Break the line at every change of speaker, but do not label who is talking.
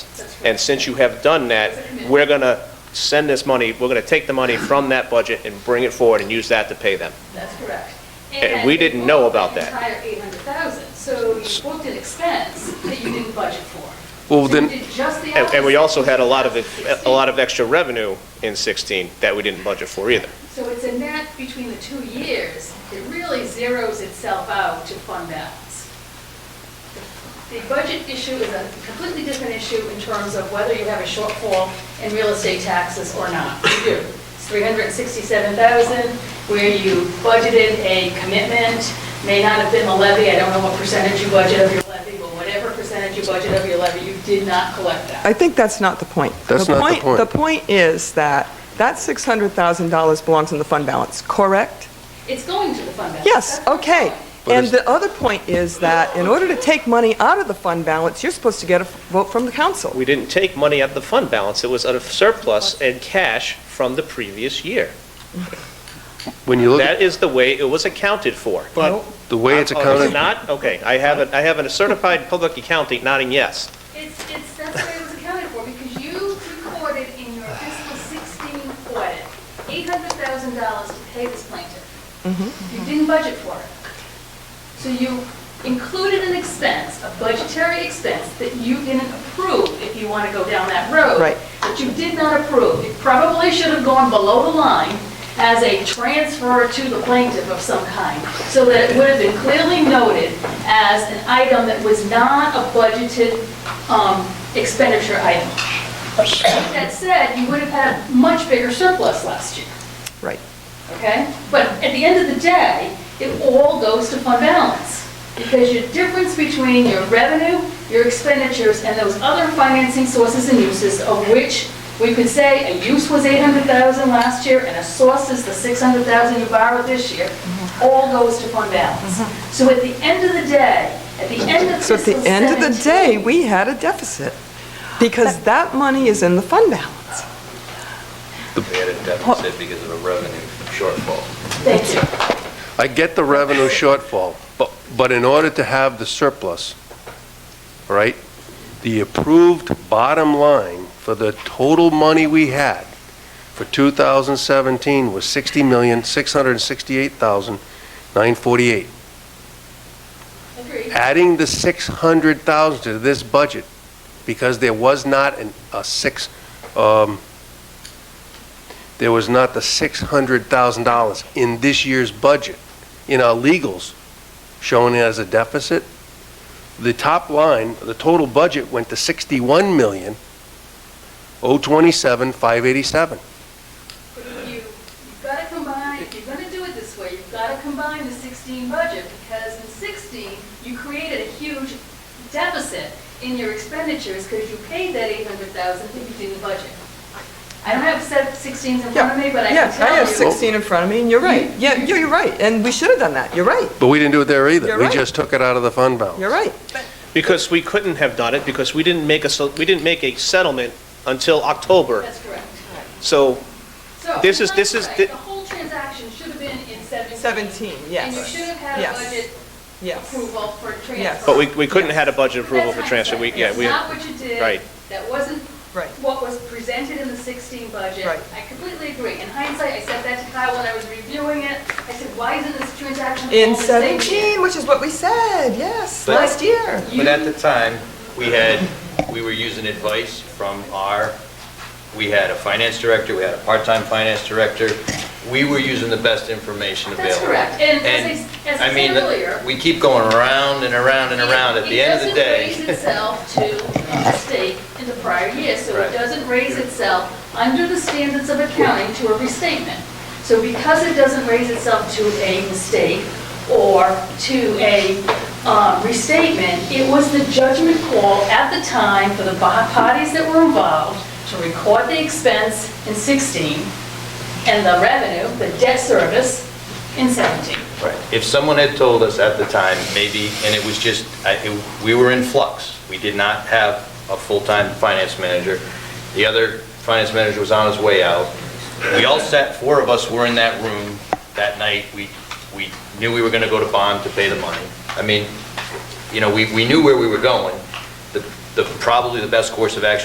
And since you have done that, we're going to send this money, we're going to take the money from that budget and bring it forward and use that to pay them.
That's correct.
And we didn't know about that.
And you booked an entire 800,000, so you booked an expense that you didn't budget for.
Well,
So you
then-
did just the
And and we
opposite.
also had a lot of, a lot of extra revenue in 16 that we didn't budget for either.
So it's a net between the two years, it really zeroes itself out to fund balance. The budget issue is a completely different issue in terms of whether you have a shortfall in real estate taxes or not. You do. It's 367,000, where you budgeted a commitment, may not have been the levy, I don't know what percentage you budget of your levy, but whatever percentage you budget of your levy, you did not collect that.
I think that's not the point.
That's not the point.
The point is that that $600,000 belongs in the fund balance, correct?
It's going to the fund balance.
Yes,
That's what I'm
okay.
saying.
But
And
it's-
the other point is that in order to take money out of the fund balance, you're supposed to get a vote from the council.
We didn't take money out of the fund balance, it was out of surplus and cash from the previous year.
When you look at
That is the way it was accounted for.
But-
the way it's
Oh, is it
accounted,
Not, okay, I have, a- I have a certified public accountant nodding yes.
It's, it's, that's what it was accounted for, because you recorded in your fiscal 16 audit, $800,000 to pay this plaintiff. You didn't budget for it. So you included an expense, a budgetary expense, that you didn't approve if you want to go down that road.
Right.
That you did not approve. It probably should have gone below the line as a transfer to the plaintiff of some kind, so that it would have been clearly noted as an item that was not a budgeted um, expenditure item. That said, you would have had a much bigger surplus last year
Right.
okay? But at the end of the day, it all goes to fund balance, because your difference between your revenue, your expenditures, and those other financing sources and uses, of which we could say a use was 800,000 last year, and a source is the 600,000 you borrowed this year,
Mm-hmm.
all goes to fund balance. So at the end of the day, at the end of
So
fiscal
at the end of the day,
17,
we had a deficit because that money is in the fund balance.
We had a deficit because of a revenue shortfall.
Thank you.
I get the revenue shortfall, but, but in order to have the surplus, all right, the approved bottom line for the total money we had for 2017 was $60,668,948.
Agreed.
Adding the 600,000 to this budget, because there was not an, a six, um, there was not the $600,000 in this year's budget, in our legals, shown as a deficit. The top line, the total budget went to 61 million, 027, 587.
you, you've got to combine, if you're going to do it this way, you've got to combine the 16 budget, because in 16, you created a huge deficit in your expenditures, because you paid that 800,000 that you didn't budget. I don't have set 16s in front of me, but I can
Yeah,
tell
I
you.
have 16 in front of me, and you're right. Yeah, you're you're right, and we should have done that. You're right,
But we didn't do it there either.
You're
We
right.
just took it out of the fund balance.
you're right.
Because we couldn't have done it, because we didn't make a, so- we didn't make a settlement until October.
That's correct.
So
So,
This is- this is
hindsight,
the-
The whole transaction should have been in 17.
17,
And you
yes,
should have had a
Yes.
budget
yes.
approval for transfer.
Yes.
But we, we couldn't have had a budget approval for
That's
transfer, we,
hindsight.
yeah, we,
That's not what you did.
Right.
That wasn't
Right.
what was presented in the 16 budget.
Right.
I completely agree. In hindsight, I said that to Kyle when I was reviewing it. I said, why isn't this transaction all
In
the same year?"
17, which is what we said, yes,
But-
last year.
But at the time, we had, we were using advice from our, we had a finance director, we had a part-time finance director. We were using the best information
That's
available.
correct. And as I s- as I
mean,
said earlier-
We keep going around and around and around. At
It-
the end of the
It doesn't
day,
raise itself to a mistake in the prior year, so it
Right.
doesn't raise itself under the standards of accounting to a restatement. So because it doesn't raise itself to a mistake or to a uh, restatement, it was the judgment call at the time for the bo- parties that were involved to record the expense in 16 and the revenue, the debt service, in 17.
Right. if someone had told us at the time, maybe, and it was just, I- it- we were in flux. We did not have a full-time finance manager. The other finance manager was on his way out. We all sat, four of us were in that room that night. We, we knew we were going to go to bond to pay the money. I mean, you know, we, we knew where we were going. The, the, probably the best course of action